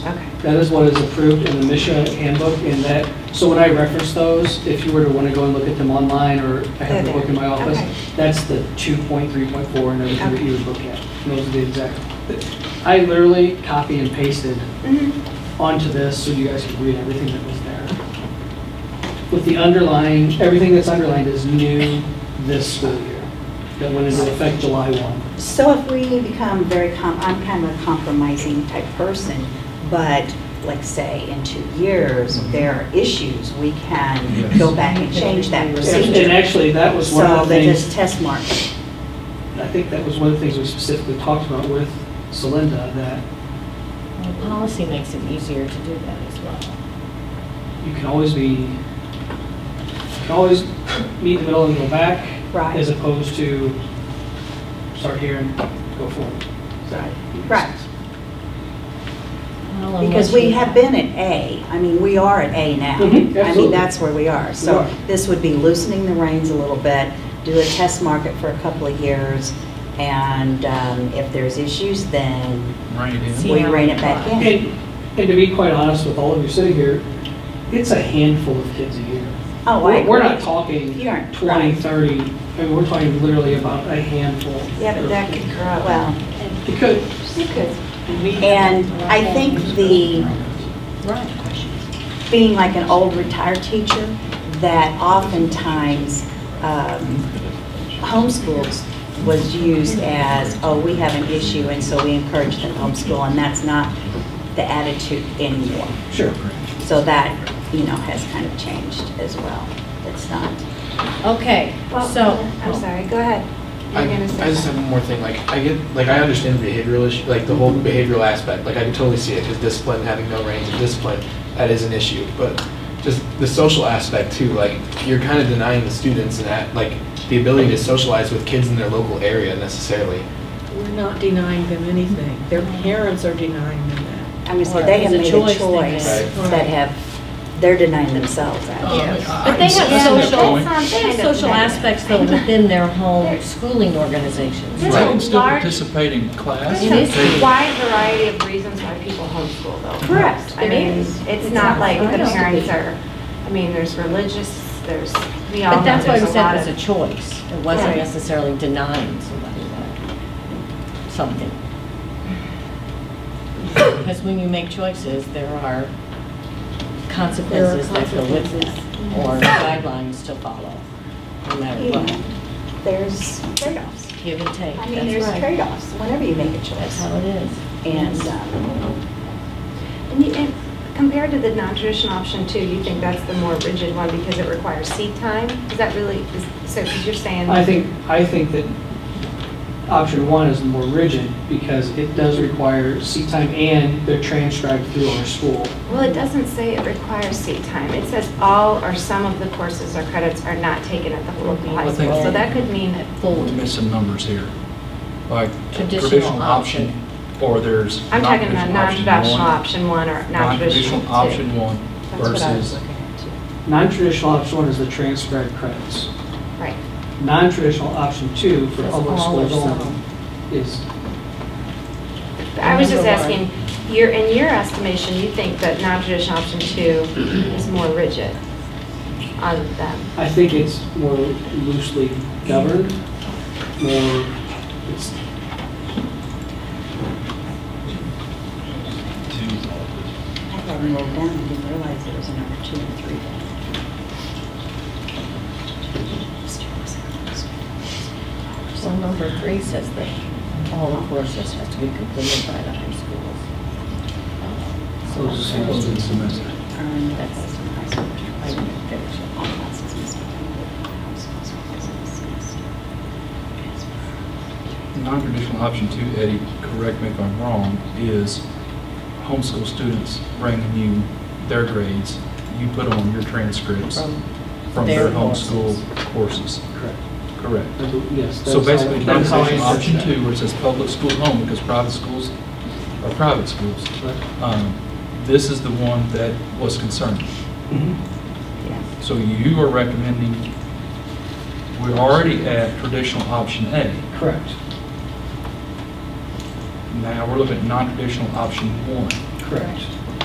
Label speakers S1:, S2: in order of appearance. S1: Okay.
S2: That is what is approved in the Misha handbook in that, so when I reference those, if you were to want to go and look at them online or I have the
S1: They're
S2: book in my
S1: there.
S2: office,
S1: Okay.
S2: that's the 2.3.4 and everything that
S1: Okay.
S2: you would look at. And Those are the exact. I literally copy and pasted
S1: Mhm.
S2: onto this so you guys could read everything that was there. With the underlying, everything that's underlined is new this school year. That went into effect July 1.
S1: So if we become very, com- I'm kind of a compromising type person, but like say in two years, there are issues, we can
S3: Yes.
S1: go back and change that
S2: And and
S1: procedure.
S2: actually, that was one
S1: So
S2: of the
S1: they
S2: things.
S1: just test mark.
S2: I think that was one of the things we specifically talked about with Celinda, that
S4: Well, Policy makes it easier to do that as well.
S2: you can always be, you can always meet in the middle and go back.
S1: Right.
S2: As opposed to start here and go forward. Does that make
S1: Right.
S2: sense?
S4: Well,
S1: Because
S4: unless
S1: we
S4: you-
S1: have been at A, I mean, we are at A now.
S2: Mhm,
S1: I mean,
S2: absolutely.
S1: that's where we are.
S2: We
S1: So
S2: are.
S1: this would be loosening the reins a little bit, do a test market for a couple of years, and um, if there's issues, then
S3: Right,
S4: See
S3: yeah.
S1: we
S4: how
S1: rein
S4: we
S1: it back
S4: fly.
S1: in.
S2: And, and to be quite honest with all of you sitting here, it's a handful of kids a year.
S1: Oh, I
S2: We're- We're not
S1: agree.
S2: talking
S1: You aren't,
S2: 20,
S1: right.
S2: 30, I mean, we're talking literally about a handful.
S5: Yeah, but that could grow.
S1: Well,
S2: It could,
S1: you could. And I think the,
S4: Right.
S1: being like an old retired teacher, that oftentimes um, homeschools was used as, oh, we have an issue, and so we encourage them to homeschool, and that's not the attitude anymore.
S2: sure.
S1: So that, you know, has kind of changed as well. It's not,
S4: Okay,
S5: Well,
S4: so.
S5: I'm sorry, go ahead.
S6: I,
S5: You're gonna
S6: I
S5: say
S6: just have
S5: something.
S6: one more thing. Like I get, like I understand the behavioral issue, like the whole behavioral aspect. Like I can totally see it because discipline, having no reins of discipline, that is an issue. But just the social aspect too. Like you're kind of denying the students and that, like the ability to socialize with kids in their local area necessarily.
S7: We're not denying them anything. Their parents are denying them that.
S1: I mean, so they have made
S4: It's a
S1: a
S4: choice they
S1: choice
S6: made.
S7: Right.
S1: that have, they're denying themselves, actually.
S4: But they have
S5: Yeah, but
S4: social,
S5: that sounds
S4: they have
S5: kind of
S4: social
S5: negative.
S4: aspects though within their home schooling organizations.
S5: Right.
S3: Right, still
S5: Large-
S3: participate in class.
S4: It is.
S5: There's a wide variety of reasons why people homeschool though.
S1: Correct,
S5: I
S1: there
S5: mean,
S1: is.
S5: it's not like
S4: I
S5: the
S4: know.
S5: parents are, I mean, there's religious, there's, we all
S4: But
S5: know
S4: that's why
S5: there's
S4: we
S5: a
S4: said
S5: lot
S4: it was a
S5: of.
S4: choice. It wasn't
S5: Right.
S4: necessarily denying somebody that, something. Because when you make choices, there are consequences that go with that, or guidelines to follow, no matter
S1: You
S4: what.
S1: know, There's trade-offs.
S4: Give and take,
S1: I mean,
S4: that's
S1: there's
S4: right.
S1: trade-offs whenever you make a
S4: That's
S1: choice.
S4: how it is.
S1: And
S4: Yes.
S1: um,
S5: And you- and compared to the non-traditional option too, you think that's the more rigid one because it requires seat time? Is that really, is- so, because you're saying.
S2: I think, I think that option one is more rigid because it does require seat time and they're transcribed through our school.
S5: Well, it doesn't say it requires seat time. It says all or some of the courses or credits are not taken at the local high
S3: I think-
S5: school. So that could mean that
S4: Full.
S3: We're missing numbers here. Like
S4: Traditional
S3: traditional option, or there's.
S5: I'm talking about non-traditional
S3: one,
S5: option one or non-traditional
S3: Non-traditional
S5: two.
S3: option one
S5: That's what I was
S3: versus,
S5: looking at too.
S2: Non-traditional option one is the transcribed credits.
S5: Right.
S2: Non-traditional option two for
S4: That's
S2: public
S4: all or
S2: schools only
S4: some.
S2: is,
S5: But I was just
S4: Number one.
S5: asking, your, in your estimation, you think that non-traditional option two is more rigid on them?
S2: I think it's more loosely governed, more, it's,
S1: I had them rolled down, I didn't realize there was a number two and three.
S4: Well, number three says that all the courses have to be completed by the high schools.
S2: so it's just supposed to be semester.
S1: Earned that was Um, in high school.
S4: I didn't finish it.
S1: All classes must be completed in high school, so it's in the semester.
S3: non-traditional option two, Eddie, correct me if I'm wrong, is homeschool students bringing you their grades, you put on your transcripts
S4: From
S3: from
S4: their
S3: their homeschool courses,
S2: Correct.
S3: correct?
S2: That's what- Yes.
S3: So
S2: that's how-
S3: basically,
S2: that's how I
S3: non-traditional option
S2: interpret
S3: two, where it says public school home, because private schools are private schools.
S2: that.
S3: Um, This is the one that was concerned.
S2: Mhm.
S3: Mm-hmm. So you are recommending, we're already at traditional option A.
S2: Correct,
S3: Now we're looking at non-traditional option one.
S2: correct.